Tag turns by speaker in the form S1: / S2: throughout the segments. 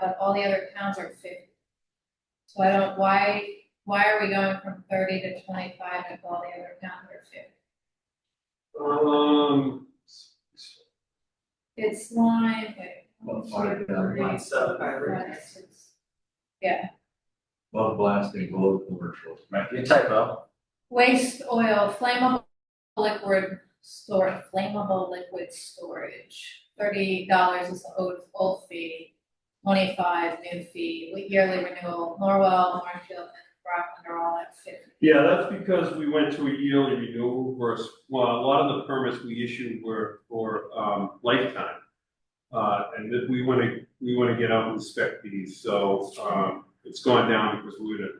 S1: but all the other towns are fifty. So I don't, why, why are we going from thirty to twenty-five if all the other towns are fifty?
S2: Um, s- s-
S1: It's line, wait.
S3: Well, five down,
S4: Line seven.
S1: Line six. Yeah,
S3: Love blasting below commercial.
S5: Might be a typo.
S1: waste oil, flammable liquid store, flammable liquid storage. Thirty dollars is the old, old fee, twenty-five new fee, yearly renewal, Norwell, Marshfield, and Rockland are all at fifty.
S2: yeah, that's because we went to a yearly renewal versus, well, a lot of the permits we issued were for, um, lifetime. Uh, and that we wanna, we wanna get out and inspect these, so, um, it's gone down because we're gonna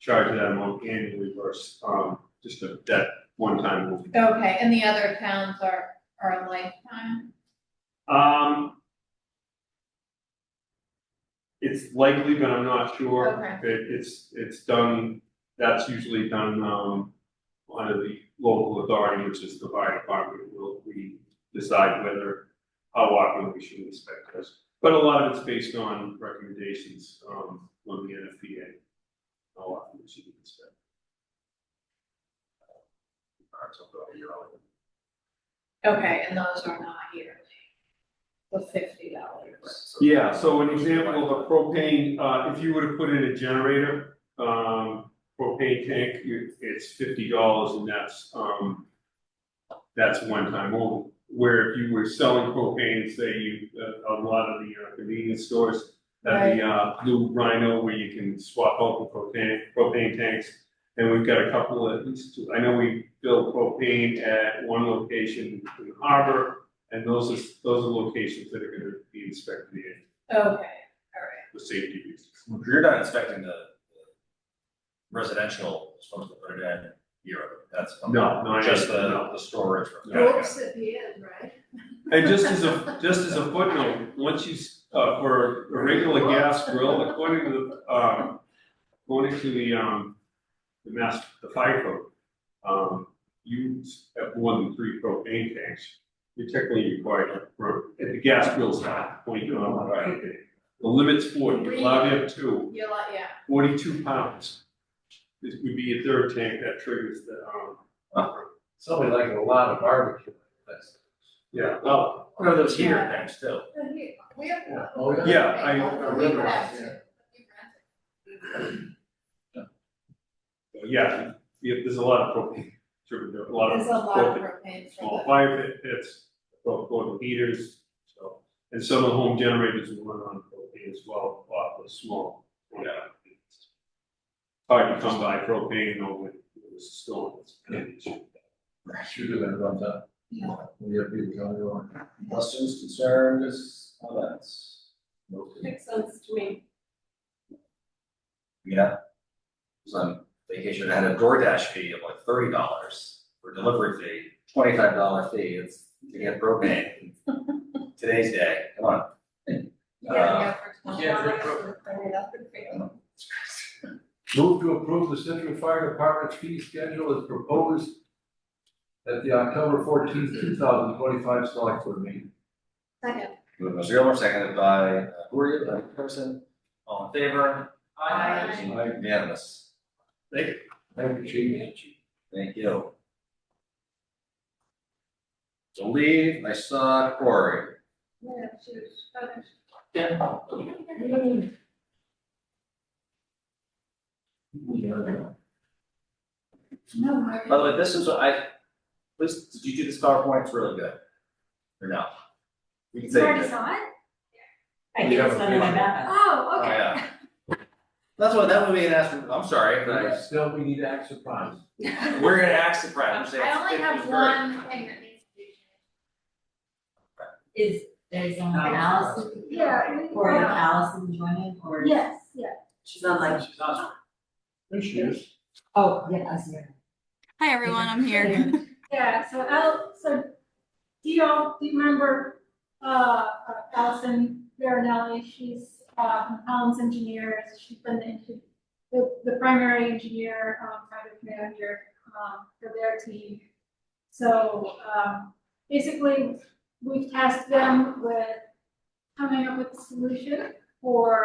S2: charge that amount annually versus, um, just a, that one time. will be.
S1: Okay, and the other towns are, are lifetime?
S2: Um. It's likely, but I'm not sure.
S1: Okay.
S2: It, it's, it's done, that's usually done, um, under the local authority, which is the fire department, will we decide whether, how often we should inspect this. But a lot of it's based on recommendations, um, from the NFPA, how often we should inspect. Alright, so, you're on.
S1: Okay, and those are not yearly. The fifty dollars.
S2: Yeah, so an example of a propane, uh, if you were to put in a generator, um, propane tank, you- it's fifty dollars and that's, um. That's one time only, where if you were selling propane, say you, uh, a lot of the uh, convenience stores. That the, uh, blue rhino where you can swap out the propane, propane tanks. And we've got a couple of, at least two, I know we build propane at one location in the harbor. And those are, those are locations that are gonna be inspected again
S1: Okay, all right.
S2: for safety reasons.
S5: You're not expecting the the residential, supposed to put it in Europe, that's.
S2: No, no, I
S5: Just the,
S2: no.
S5: the storage. room.
S2: Yeah, yeah.
S1: at the end, right?
S2: And just as a, just as a footnote, once you, s- uh, for a regular gas grill, according to the, um, according to the, um, the mass, the fire code, um, you s- have more than three propane tanks, you're technically required for, at the gas grill's not, point you know, right? The limit's forty, you're allowed to have two.
S1: You're like, uh, yeah.
S2: forty-two pounds. This would be a third tank that triggers the, um.
S3: Something like a lot of barbecue. that's-
S2: Yeah.
S5: Well, what are those heater things too?
S1: We have.
S3: Oh,
S2: Yeah, I- I remember. Yeah, yeah, there's a lot of propane, triggered, a lot of
S1: There's a lot of
S2: propane,
S1: propane
S2: small
S1: for
S2: fire pit pits, propane heaters, so. And some of the home generators will run on propane as well, off the small, yeah. Hard to come by propane over, it's a storm, it's an issue.
S3: Should have been rubbed up.
S1: Yeah.
S3: We have people coming on.
S6: Questions, concerns, comments?
S4: Makes sense to me.
S5: Yeah. So on vacation, I had a DoorDash fee of like thirty dollars for delivery fee, twenty-five dollar fee, it's to get propane. Today's day, come on.
S1: the. Yeah,
S6: Uh,
S1: yeah,
S6: yeah,
S1: for
S6: for
S1: 21.
S3: Move to approve the Central Fire Department's fee schedule as proposed at the October fourteenth, two thousand twenty-five select board meeting.
S1: Second.
S5: Moved by Mr. Gilmore, seconded by uh, who are you, uh, person, all in favor?
S1: Aye.
S3: Aye.
S5: Unanimous,
S3: Thank you, Chief.
S5: thank you. To leave, I saw Corey.
S1: Yeah, she's- okay. No, Mary.
S5: By the way, this is, I, this, did you do this PowerPoint, it's really good, or no? We can
S4: You
S5: say it
S4: already
S5: did.
S4: saw it?
S3: I think it's under my map.
S4: Oh,
S5: Oh,
S4: okay.
S5: yeah. That's what, that would be an ask, I'm sorry, but
S3: Still, we need to act surprised.
S5: I, we're gonna ask the press,
S1: I only have one thing that needs to be changed.
S7: Is there's um Allison
S4: Yeah. we-
S7: or Allison joining or?
S4: Yes, yeah.
S7: She's not like,
S3: There she is.
S7: oh, yeah, I see her.
S8: Hi, everyone, I'm here.
S4: Yeah, so Al, so do you all, do you remember, uh, Allison Veronelli, she's, uh, from Collins Engineers, she's been the, engi- the, the primary engineer, um, project manager, um, for their team. So, um, basically, we've tasked them with coming up with a solution for